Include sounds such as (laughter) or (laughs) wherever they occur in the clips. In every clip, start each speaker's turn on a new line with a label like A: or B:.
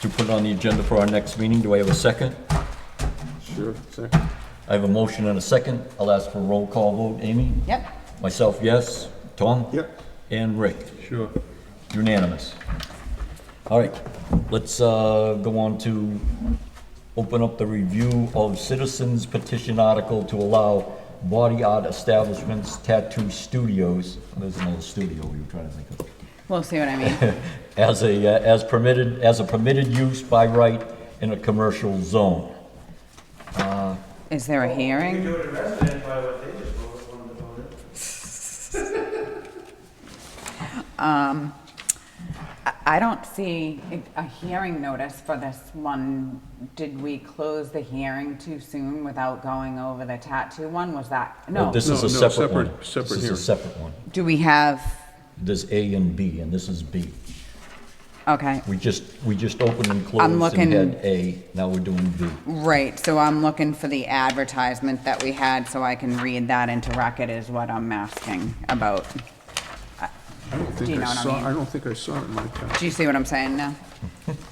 A: put it on the agenda for our next meeting. Do I have a second?
B: Sure, second.
A: I have a motion and a second. I'll ask for a roll call vote. Amy?
C: Yep.
A: Myself, yes. Tom?
B: Yep.
A: And Rick?
B: Sure.
A: Unanimous. All right, let's uh, go on to open up the review of citizens petition article to allow body art establishments, tattoo studios, there's another studio we were trying to think of, (laughs)
C: We'll see what I mean.
A: as a, uh, as permitted, as a permitted use by right in a commercial zone.
C: Is there a
D: You
C: hearing?
D: do it in resident by what they just voted, wanted to vote in.
C: I- I don't see a- a hearing notice for this one. Did we close the hearing too soon without going over the tattoo one? Was that,
A: Well,
C: no.
A: This is
B: No,
A: a
B: no,
A: separate one.
B: separate- separate
A: This is a
B: hearing.
A: separate one.
C: Do we have,
A: There's A and B, and this is B.
C: okay,
A: We just, we just opened and closed
C: looking-
A: and had A, now we're doing B.
C: right, so I'm looking for the advertisement that we had so I can read that into record is what I'm asking about.
B: I don't
C: Do you
B: think
C: know
B: I
C: what I mean?
B: saw, I don't think I saw it in my time.
C: Do you see what I'm
A: (laughs)
C: saying now?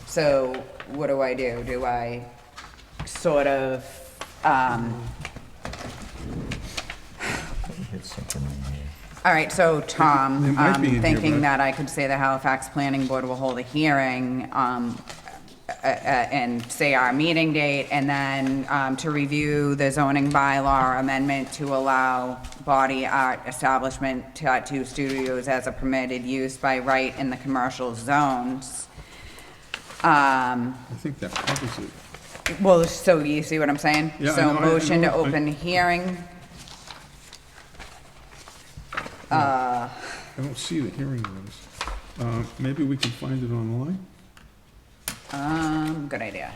C: So what do I do? Do I sort of, um,
A: Hit something in here.
C: All right, so
B: They
C: Tom,
B: might
C: um,
B: be in here,
C: thinking
B: but-
C: that I could say the Halifax Planning Board will hold a hearing um, uh, uh, and say our meeting date, and then um, to review the zoning bylaw amendment to allow body art establishment tattoo studios as a permitted use by right in the commercial zones. Um,
B: I think that covers it.
C: Well, so you see what I'm saying?
B: Yeah, I
C: So
B: know, I- I
C: motion to
B: know, I-
C: open hearing,
B: I don't see the hearing notice. Uh, Maybe we can find it online?
C: Um, good idea.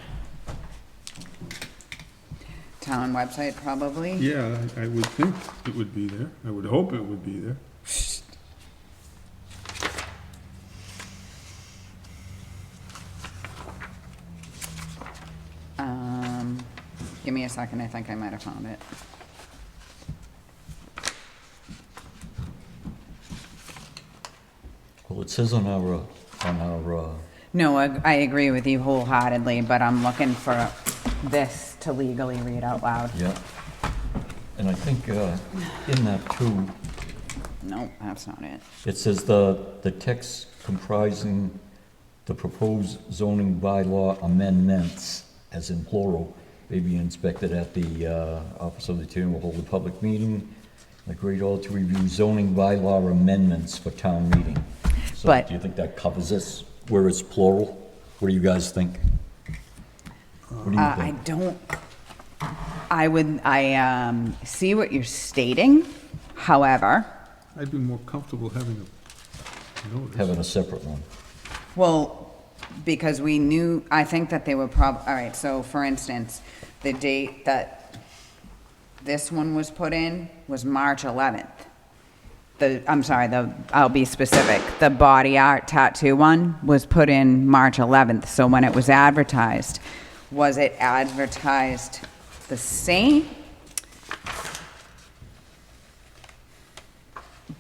C: Town website, probably.
B: Yeah, I I would think it would be there. I would hope it would be there.
C: Um, give me a second, I think I might have found it.
A: Well, it says on our, uh, on our, uh,
C: No, I, I agree with you wholeheartedly, but I'm looking for this to legally read out loud.
A: yeah, and I think uh, in that too,
C: No, that's not it.
A: it says the, the text comprising the proposed zoning bylaw amendments, as in plural, may be inspected at the uh, Office of the Chair will hold a public meeting, the Great Hall to review zoning bylaw amendments for town meeting. So
C: But-
A: Do you think that covers this, where it's plural? What do you guys think? What do you
C: Uh, I
A: think?
C: don't, I would, I, um, see what you're stating, however,
B: I'd be more comfortable having a notice.
A: Having a separate one.
C: Well, because we knew, I think that they were prob, all right, so for instance, the date that this one was put in was March 11th. The, I'm sorry, the, I'll be specific, the body art tattoo one was put in March 11th, so when it was advertised, was it advertised the same?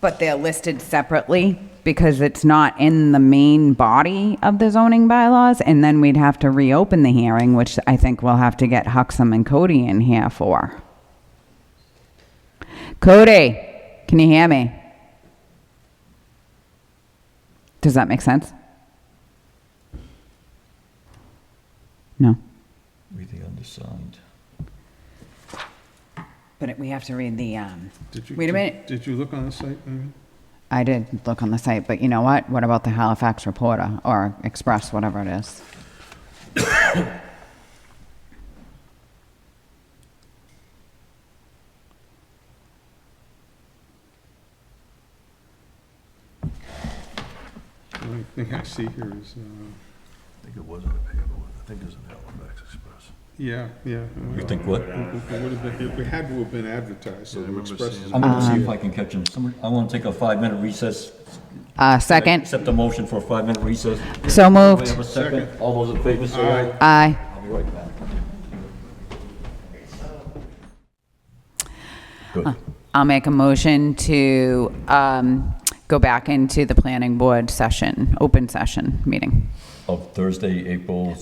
C: But they're listed separately because it's not in the main body of the zoning bylaws, and then we'd have to reopen the hearing, which I think we'll have to get Huxham and Cody in here for. Cody, can you hear me? Does that make sense? No,
A: We the undersigned.
C: but it- we have to read the, um,
B: Did you-
C: wait a
B: did-
C: minute.
B: Did you look on the site, Amy?
C: I did look on the site, but you know what? What about the Halifax Reporter or Express, whatever it is?
B: The only thing I see here is, uh,
E: I think it was in the paperwork, I think it was in Halifax Express.
B: yeah, yeah.
A: You think what?
B: It would have been, it had to have been advertised, so
E: Yeah, I
B: the
E: remember
B: Express
E: seeing
B: is
E: it.
A: I'm gonna
C: Um,
A: see if I can catch him. Somebody, I wanna take a five-minute recess.
C: Uh, second,
A: Accept the motion for a five-minute recess.
C: so
A: Do I
C: moved.
A: have a second? All those in favor, say aye.
C: Aye.
A: I'll be right back. Good.
C: I'll make a motion to um, go back into the planning board session, open session meeting.
A: Of Thursday, April